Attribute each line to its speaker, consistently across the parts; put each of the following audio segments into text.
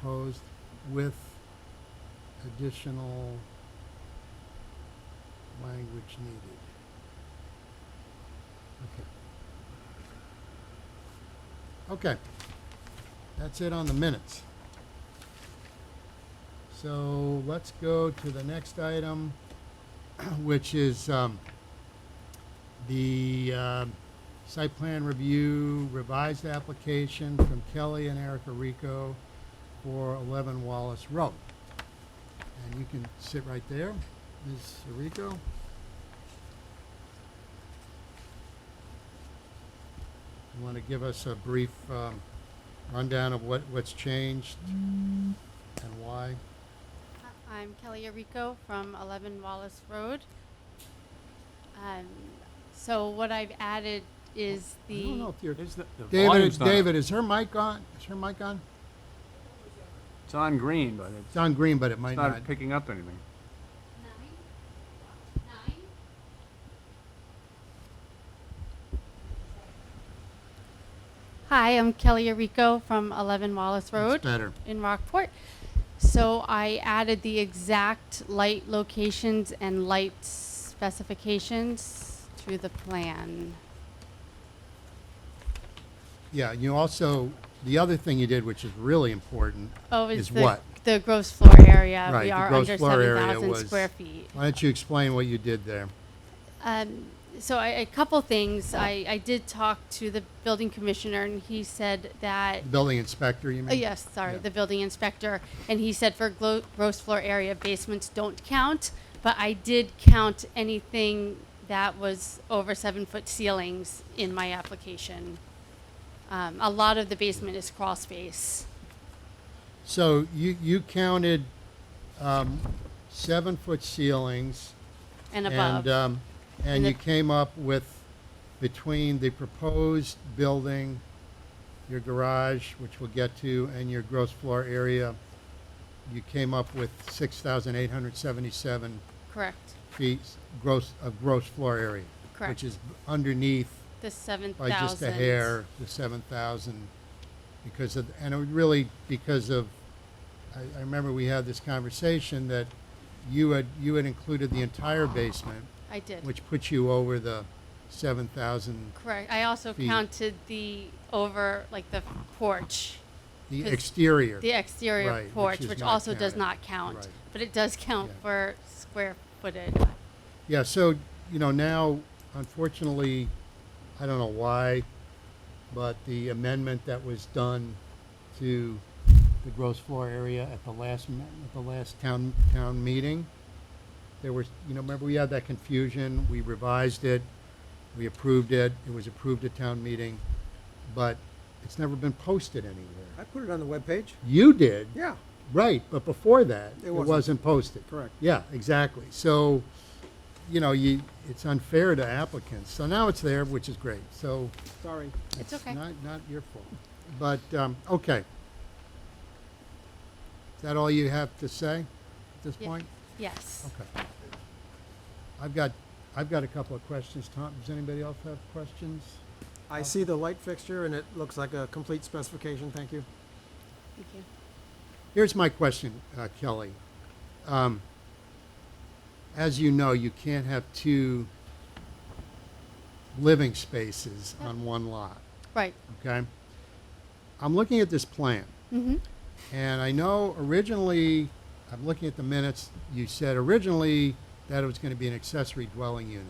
Speaker 1: proposed with additional language needed. Okay. Okay. That's it on the minutes. So let's go to the next item, which is um, the um, site plan review revised application from Kelly and Erica Rico for 11 Wallace Road. And you can sit right there, Ms. Rico. You want to give us a brief um, rundown of what, what's changed and why?
Speaker 2: Hi, I'm Kelly Arico from 11 Wallace Road. Um, so what I've added is
Speaker 1: I
Speaker 2: the
Speaker 1: don't know if you're,
Speaker 3: Is the, the
Speaker 1: David,
Speaker 3: volume's not up.
Speaker 1: David, is her mic on? Is her mic on?
Speaker 3: It's on green, but it's
Speaker 1: It's on green, but it might
Speaker 3: not
Speaker 1: not.
Speaker 3: picking up anything.
Speaker 2: nine, nine. Hi, I'm Kelly Arico from 11 Wallace Road.
Speaker 1: It's better.
Speaker 2: in Rockport. So I added the exact light locations and light specifications to the plan.
Speaker 1: Yeah, you also, the other thing you did, which is really important,
Speaker 2: Oh, is
Speaker 1: Is
Speaker 2: the,
Speaker 1: what?
Speaker 2: the gross floor area.
Speaker 1: Right,
Speaker 2: we
Speaker 1: the
Speaker 2: are
Speaker 1: gross
Speaker 2: under
Speaker 1: floor area
Speaker 2: 7,000
Speaker 1: was-
Speaker 2: square feet.
Speaker 1: why don't you explain what you did there?
Speaker 2: Um, so I, a couple things. I, I did talk to the building commissioner, and he said that
Speaker 1: The building inspector, you mean?
Speaker 2: Oh, yes, sorry,
Speaker 1: Yeah.
Speaker 2: the building inspector, and he said for glo- gross floor area, basements don't count, but I did count anything that was over seven-foot ceilings in my application. Um, a lot of the basement is crawl space.
Speaker 1: So you, you counted um, seven-foot ceilings.
Speaker 2: And above.
Speaker 1: And, um, and
Speaker 2: And
Speaker 1: you
Speaker 2: the-
Speaker 1: came up with, between the proposed building, your garage, which we'll get to, and your gross floor area, you came up with six thousand eight hundred seventy-seven
Speaker 2: Correct,
Speaker 1: feet gross, of gross floor area.
Speaker 2: Correct.
Speaker 1: Which is underneath
Speaker 2: the seven
Speaker 1: by
Speaker 2: thousand.
Speaker 1: just a hair, the seven thousand, because of, and it really, because of, I, I remember we had this conversation that you had, you had included the entire basement,
Speaker 2: I did,
Speaker 1: which puts you over the seven thousand,
Speaker 2: correct. I also
Speaker 1: feet.
Speaker 2: counted the over, like the porch,
Speaker 1: the
Speaker 2: 'Cause
Speaker 1: exterior.
Speaker 2: the exterior
Speaker 1: Right, which
Speaker 2: porch,
Speaker 1: is
Speaker 2: which
Speaker 1: not
Speaker 2: also does
Speaker 1: counted.
Speaker 2: not count.
Speaker 1: Right.
Speaker 2: But it does count
Speaker 1: Yeah.
Speaker 2: for square footage.
Speaker 1: Yeah, so, you know, now, unfortunately, I don't know why, but the amendment that was done to the gross floor area at the last, me- at the last town, town meeting, there was, you know, remember we had that confusion, we revised it, we approved it, it was approved at town meeting, but it's never been posted anywhere.
Speaker 4: I put it on the webpage.
Speaker 1: You did.
Speaker 4: Yeah,
Speaker 1: Right, but before that,
Speaker 4: It
Speaker 1: it
Speaker 4: wasn't.
Speaker 1: wasn't posted.
Speaker 4: correct.
Speaker 1: Yeah, exactly. So, you know, you, it's unfair to applicants. So now it's there, which is great. So
Speaker 4: Sorry.
Speaker 2: It's okay.
Speaker 1: not, not your fault. But, um, okay. Is that all you have to say at this
Speaker 2: Yeah.
Speaker 1: point?
Speaker 2: Yes.
Speaker 1: Okay. I've got, I've got a couple of questions. Tom, does anybody else have questions?
Speaker 4: I see the light fixture and it looks like a complete specification, thank you.
Speaker 2: Thank you.
Speaker 1: Here's my question, uh, Kelly. Um, as you know, you can't have two living spaces
Speaker 2: Yep.
Speaker 1: on one lot,
Speaker 2: Right.
Speaker 1: okay? I'm looking at this plan,
Speaker 2: Mm-hmm.
Speaker 1: and I know originally, I'm looking at the minutes, you said originally that it was going to be an accessory dwelling unit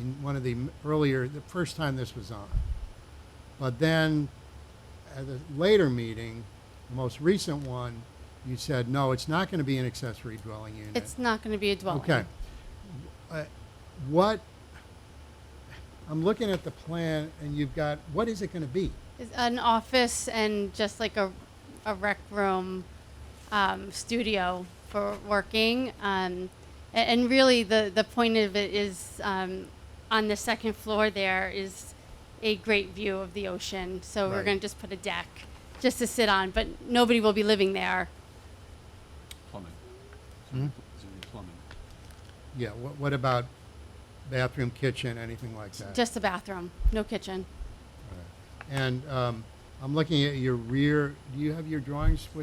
Speaker 1: in one of the m- earlier, the first time this was on. But then at a later meeting, the most recent one, you said, no, it's not going to be an accessory dwelling unit.
Speaker 2: It's not going to be a dwelling.
Speaker 1: Okay. Uh, What, I'm looking at the plan and you've got, what is it going to be?
Speaker 2: It's an office and just like a, a rec room, um, studio for working. Um, a- and, really, the the point of it is um, on the second floor there is a great view of the ocean. So we're
Speaker 1: Right.
Speaker 2: going to just put a deck just to sit on, but nobody will be living there.
Speaker 3: Plumbing.
Speaker 1: Hmm?
Speaker 3: plumbing.
Speaker 1: Yeah, what, what about bathroom, kitchen, anything like that?
Speaker 2: Just a bathroom, no kitchen.
Speaker 1: And um, I'm looking at your rear, do you have your drawings with